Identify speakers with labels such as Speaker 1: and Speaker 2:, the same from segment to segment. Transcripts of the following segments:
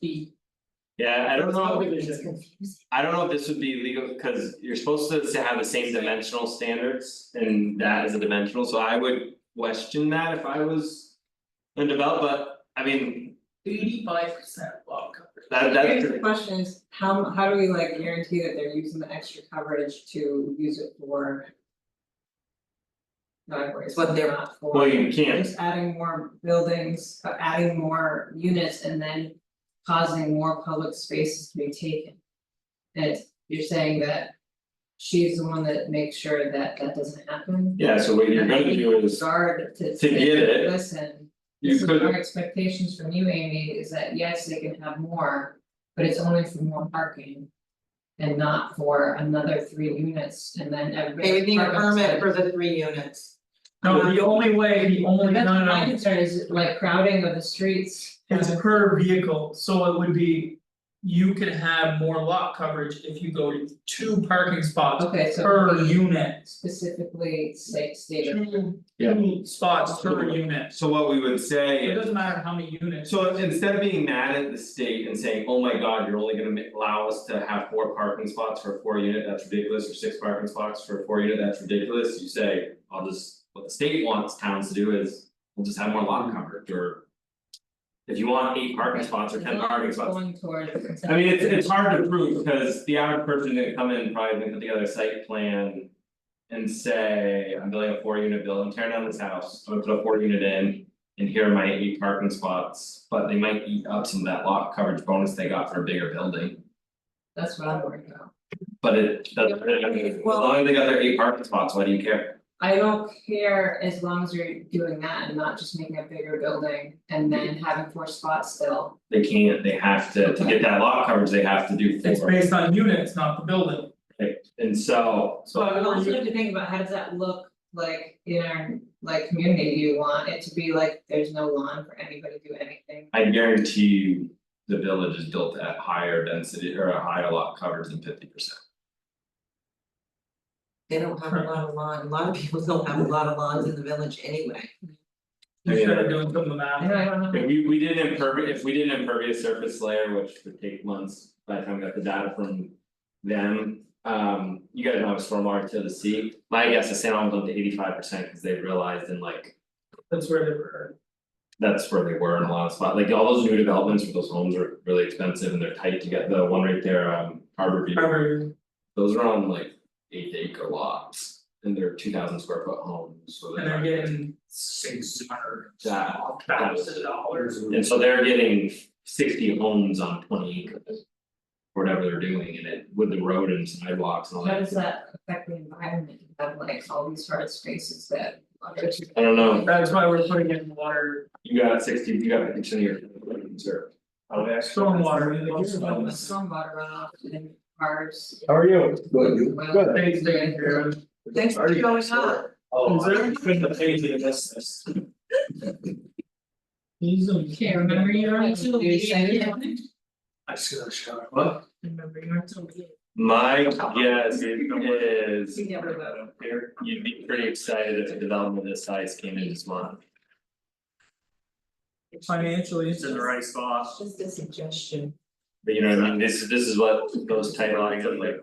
Speaker 1: feet.
Speaker 2: Yeah, I don't know,
Speaker 1: Probably
Speaker 2: if
Speaker 1: gets
Speaker 2: this-
Speaker 1: confusing.
Speaker 2: I don't know if this would be legal, cause you're supposed to to have the same dimensional standards and that is a dimensional, so I would question that if I was. A developer, I mean,
Speaker 1: Eighty-five percent lot coverage.
Speaker 2: that
Speaker 3: Here's the
Speaker 2: that,
Speaker 3: question is, how how do we like guarantee that they're using the extra coverage to use it for? Driveways, what they're not for.
Speaker 2: well, you can't,
Speaker 3: Just adding more buildings, uh, adding more units and then causing more public spaces to be taken. And you're saying that she's the one that makes sure that that doesn't happen?
Speaker 2: yeah, so what you're
Speaker 3: And I
Speaker 2: gonna
Speaker 3: think
Speaker 2: do is,
Speaker 3: Guard to
Speaker 2: to get it,
Speaker 3: listen.
Speaker 2: you
Speaker 3: This is
Speaker 2: could,
Speaker 3: our expectations from you, Amy, is that yes, they can have more, but it's only for more parking. And not for another three units and then everybody.
Speaker 4: Okay, we need a permit for the three units.
Speaker 1: No, the only way, the only, no,
Speaker 3: That's
Speaker 1: no,
Speaker 3: my
Speaker 1: no,
Speaker 3: concern is like crowding of the streets.
Speaker 1: it's per vehicle, so it would be. You could have more lot coverage if you go to two parking spots
Speaker 3: Okay, so.
Speaker 1: per
Speaker 3: we
Speaker 1: unit.
Speaker 3: Specifically say stated.
Speaker 1: Two,
Speaker 2: Yeah.
Speaker 1: two spots per unit,
Speaker 2: so what we would say
Speaker 1: it doesn't matter how many units.
Speaker 2: So instead of being mad at the state and saying, oh my god, you're only gonna ma- allow us to have four parking spots for a four unit, that's ridiculous, or six parking spots for a four unit, that's ridiculous, you say, I'll just, what the state wants towns to do is, we'll just have more lot coverage, or. If you want eight parking spots or
Speaker 3: As
Speaker 2: ten
Speaker 3: long as
Speaker 2: parking
Speaker 3: it's
Speaker 2: spots,
Speaker 3: Going towards.
Speaker 2: I mean, it's it's hard to prove, because the average person gonna come in, probably gonna put together a site plan. And say, I'm building a four unit building, tearing down this house, I'm gonna put a four unit in, and here are my eight parking spots, but they might eat up some of that lot coverage bonus they got for a bigger building.
Speaker 3: That's what I'm worried about.
Speaker 2: But it doesn't, I mean, as long as they got their eight parking spots, why do you care?
Speaker 3: I don't care as long as you're doing that and not just making a bigger building and then having four spots still.
Speaker 2: They can't, they have to, to get that lot coverage, they have to do
Speaker 1: It's
Speaker 2: four,
Speaker 1: based on units, not the building,
Speaker 2: and so.
Speaker 1: so.
Speaker 3: So I
Speaker 1: per
Speaker 3: also
Speaker 1: unit.
Speaker 3: have to think about how does that look like in our, like, community, do you want it to be like, there's no lawn for anybody to do anything?
Speaker 2: I guarantee you, the village is built at higher density or a higher lot coverage than fifty percent.
Speaker 4: They don't have a lot of lawn, a lot of people don't have a lot of lawns in the village anyway.
Speaker 1: You should have done some of the math.
Speaker 3: I don't know.
Speaker 2: If we we did an impervi- if we did an impervious surface layer, which would take months, by the time we got the data from. Them, um, you guys know it's from our to the sea, my guess is San Alvin went to eighty five percent, cause they realized in like.
Speaker 1: That's where they were,
Speaker 2: That's where they were in a lot of spots, like all those new developments with those homes are really expensive and they're tight to get, the one right there, um, Harbor View.
Speaker 1: However,
Speaker 2: Those are on like eight acre lots and they're two thousand square foot homes, so
Speaker 1: and
Speaker 2: they're.
Speaker 1: they're getting six hundred
Speaker 2: Yeah.
Speaker 1: thousand dollars.
Speaker 2: And so they're getting sixty homes on twenty acres. or Whatever they're doing and it with the road and sidewalks and all
Speaker 3: How does
Speaker 2: that,
Speaker 3: that affect the environment, You have like all these hard spaces that.
Speaker 2: I don't know,
Speaker 1: That's why we're putting in water,
Speaker 2: you got sixty, you got fifty percent of your reserve.
Speaker 1: stormwater, we love
Speaker 3: Like, the
Speaker 1: storm.
Speaker 3: Stormwater runoff and cars.
Speaker 5: How are you? Good, you?
Speaker 3: Well-
Speaker 5: Good.
Speaker 1: Thanks, Dan, here.
Speaker 4: Thanks for
Speaker 5: Already
Speaker 4: showing
Speaker 5: next
Speaker 4: up.
Speaker 5: door. Oh,
Speaker 1: Is
Speaker 5: I
Speaker 1: there-
Speaker 5: already put the page in the business.
Speaker 1: He's on
Speaker 3: Can't remember your. You said it.
Speaker 5: I see that shot. What?
Speaker 1: Remember your until.
Speaker 2: My guess is
Speaker 3: You never vote.
Speaker 2: you'd be pretty excited if a development this size came in this month.
Speaker 1: Financially, it's
Speaker 2: right spot.
Speaker 4: Just a suggestion.
Speaker 2: But you know what I mean, this is this is what those tight lines look like.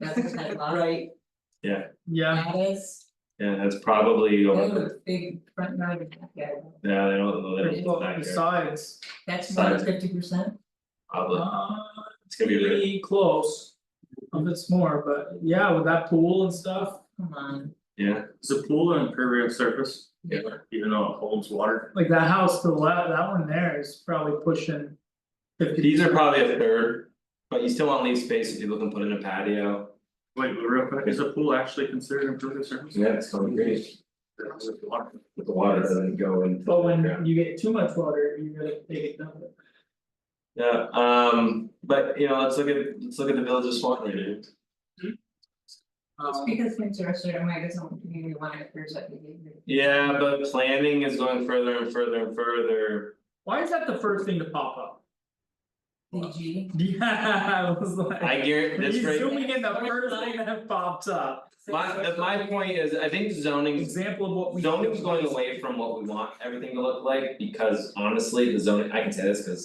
Speaker 3: That's what I love.
Speaker 4: Right,
Speaker 1: yeah,
Speaker 3: That is,
Speaker 2: Yeah, that's probably
Speaker 3: that
Speaker 2: over,
Speaker 3: was a big front yard and back yard.
Speaker 2: yeah, they don't, know that it's
Speaker 1: well,
Speaker 2: back there,
Speaker 1: besides,
Speaker 3: that's more than fifty percent,
Speaker 2: probably,
Speaker 1: uh,
Speaker 2: it's gonna be really,
Speaker 1: pretty close. Um, it's more, but yeah, with that pool and stuff,
Speaker 3: come on.
Speaker 2: yeah.
Speaker 6: Is the pool an impervious surface?
Speaker 2: Yeah.
Speaker 6: Even though it holds water?
Speaker 1: like that house to the left, that one there is probably pushing. Fifty.
Speaker 2: These are probably a third, but you still want to leave space if people can put in a patio.
Speaker 6: Wait, real quick, is a pool actually considered impervious surface?
Speaker 2: Yeah, it's going great.
Speaker 6: That holds water.
Speaker 2: But the water doesn't go into. the
Speaker 1: But when
Speaker 2: ground.
Speaker 1: you get too much water, you gotta take it down.
Speaker 2: Yeah, um, but you know, let's look at, let's look at the village of Swan Lake, dude.
Speaker 3: Just
Speaker 1: Um,
Speaker 3: because things are a certain way, doesn't mean we want to encourage that behavior.
Speaker 2: Yeah, but planning is going further and further and further.
Speaker 1: why is that the first thing to pop up?
Speaker 3: E.g.
Speaker 1: Yeah, I was like.
Speaker 2: I guarantee this
Speaker 1: He's
Speaker 2: rate,
Speaker 1: zooming in the first thing that popped up,
Speaker 2: my, the- my point is, I think zoning,
Speaker 1: example of what we.
Speaker 2: zoning's going away from what we want everything to look like, because honestly, the zoning, I can say this because.